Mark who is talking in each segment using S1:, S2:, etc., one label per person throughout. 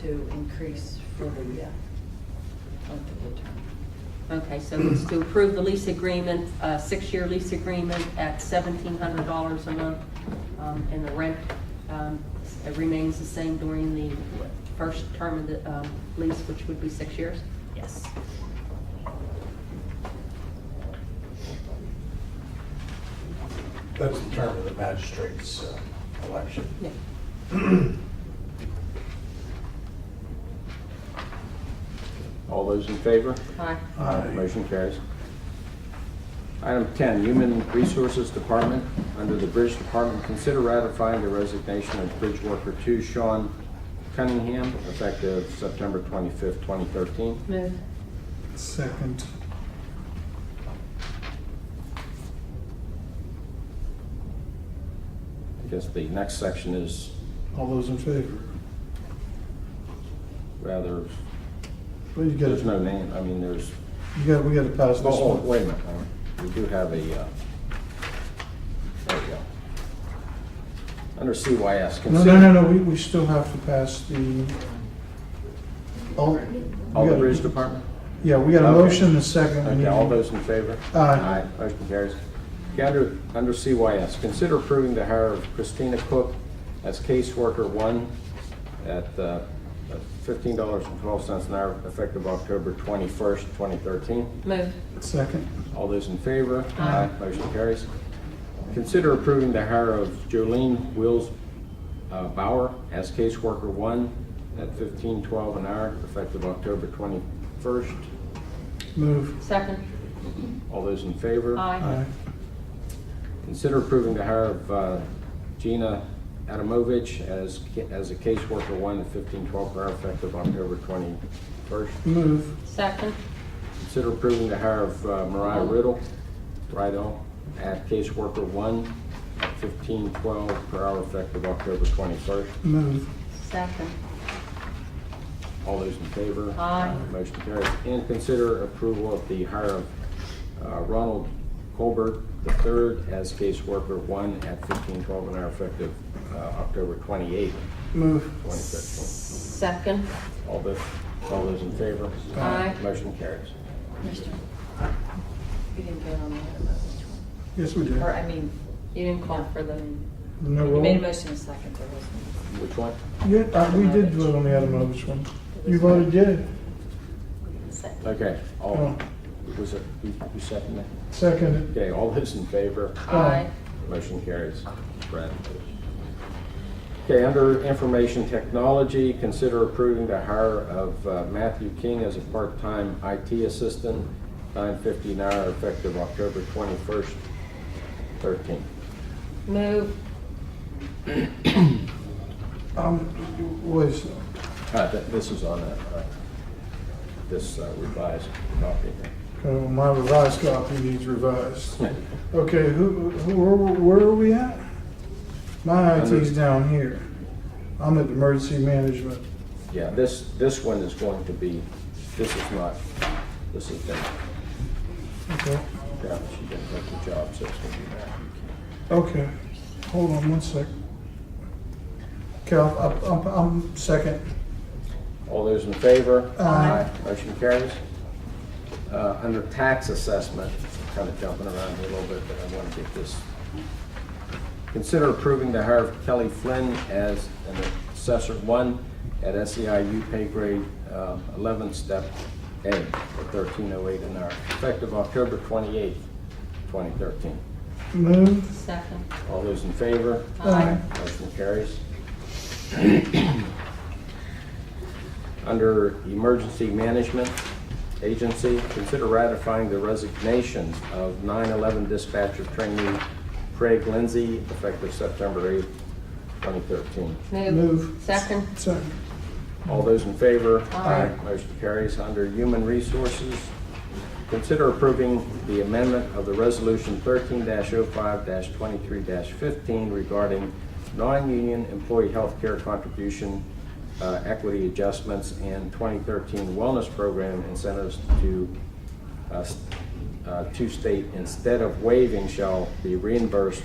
S1: to increase for the uh, length of the term.
S2: Okay, so it's to approve the lease agreement, a six-year lease agreement at seventeen hundred dollars a month, um, and the rent, um, it remains the same during the first term of the, um, lease, which would be six years.
S1: Yes.
S3: That's the term of the magistrate's uh, election.
S2: Yeah.
S4: All those in favor?
S2: Aye.
S3: Aye.
S4: Motion carries. Item 10, Human Resources Department, under the Bridge Department, consider ratifying the resignation of Bridge Worker 2 Sean Cunningham, effective September 25th, 2013.
S2: Move.
S5: Second.
S4: I guess the next section is
S5: All those in favor?
S4: rather,
S5: Well, you
S4: there's no
S5: gotta,
S4: name, I mean, there's,
S5: you gotta, we gotta pass this
S4: oh,
S5: one.
S4: wait a minute, we do have a, uh, there we go. Under CYS,
S5: No,
S4: consider.
S5: no, no, no, we, we still have to pass the, all.
S4: All
S5: we
S4: Oh, the
S5: gotta-
S4: Bridge Department?
S5: Yeah, we got a
S4: Okay.
S5: motion and a second. We
S4: Okay,
S5: need-
S4: all those in favor?
S5: Aye.
S4: Motion carries. Okay, under, under CYS, consider approving the hire of Christina Cook as caseworker one at uh, fifteen dollars and twelve cents an hour effective October twenty-first, twenty thirteen.
S2: Move.
S5: Second,
S4: All those in favor?
S2: Aye.
S4: Motion carries. Consider approving the hire of Jolene Wills uh, Bauer as caseworker one at fifteen twelve an hour effective October twenty-first.
S5: move.
S2: Second.
S4: All those in favor?
S2: Aye.
S5: Aye.
S4: Consider approving the hire of uh, Gina Adamovich as, ca- as a caseworker one at fifteen twelve per hour effective October twenty-first.
S5: Move,
S2: Second.
S4: Consider approving the hire of uh, Mariah Riddle, Riddle, at caseworker one at fifteen twelve per hour effective October twenty-first.
S5: move,
S2: Second.
S4: All those in favor?
S2: Aye.
S4: Motion carries. And consider approval of the hire of uh, Ronald Colbert III as caseworker one at fifteen twelve an hour effective uh, October twenty-eighth,
S5: move.
S4: twenty thirteen.
S2: Second.
S4: All those, all those in favor?
S2: Aye.
S4: Motion carries.
S1: Mr. You didn't vote on the other motion.
S5: Yes, we did.
S1: Or, I mean,
S2: You didn't call for the,
S5: No
S1: you made a
S5: roll?
S1: motion in second, there wasn't.
S4: Which one?
S5: Yeah, uh, we did vote on the item on this one. You voted yea.
S1: Second.
S4: Okay, all,
S5: Oh.
S4: was it, you you seconded?
S5: Second,
S4: Okay, all those in favor?
S2: aye.
S4: Motion carries. Brad. Okay, under information technology, consider approving the hire of uh, Matthew King as a part-time IT assistant, nine fifty an hour, effective October twenty-first, thirteen.
S2: Move.
S5: um, was,
S4: Uh, th- This is on a, uh, this uh, revised copy here.
S5: uh, my revised copy needs revised. Okay, who, who, where, where are we at? My IT's down here. I'm at emergency management.
S4: Yeah, this, this one is going to be, this is not, this is, the-
S5: Okay,
S4: yeah, she didn't take the job, so it's going to be Matthew King.
S5: okay. Hold on one sec. Okay, I'm, I'm, I'm second.
S4: All those in favor?
S5: Aye.
S4: Motion carries. Uh, Under tax assessment, kind of jumping around here a little bit, but I want to get this. Consider approving the hire of Kelly Flynn as an assessor one at SEIU pay grade uh, 11, step A, at 1308 an hour, effective October 28, 2013.
S5: Move.
S2: Second.
S4: All those in favor?
S5: Aye.
S4: Motion carries. Under Emergency Management Agency, consider ratifying the resignation of 9/11 dispatcher trainee Craig Lindsay effective September 8, 2013.
S2: Move.
S5: Move.
S2: Second.
S5: Second.
S4: All those in favor?
S2: Aye.
S4: Motion carries. Under Human Resources, consider approving the amendment of the Resolution 13-05-23-15 regarding non-union employee healthcare contribution uh, equity adjustments and 2013 wellness program incentives to uh, s- uh, to state instead of waiving shall be reimbursed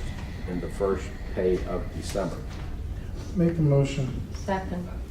S4: in the first pay of December.
S5: Make a motion.
S2: Second.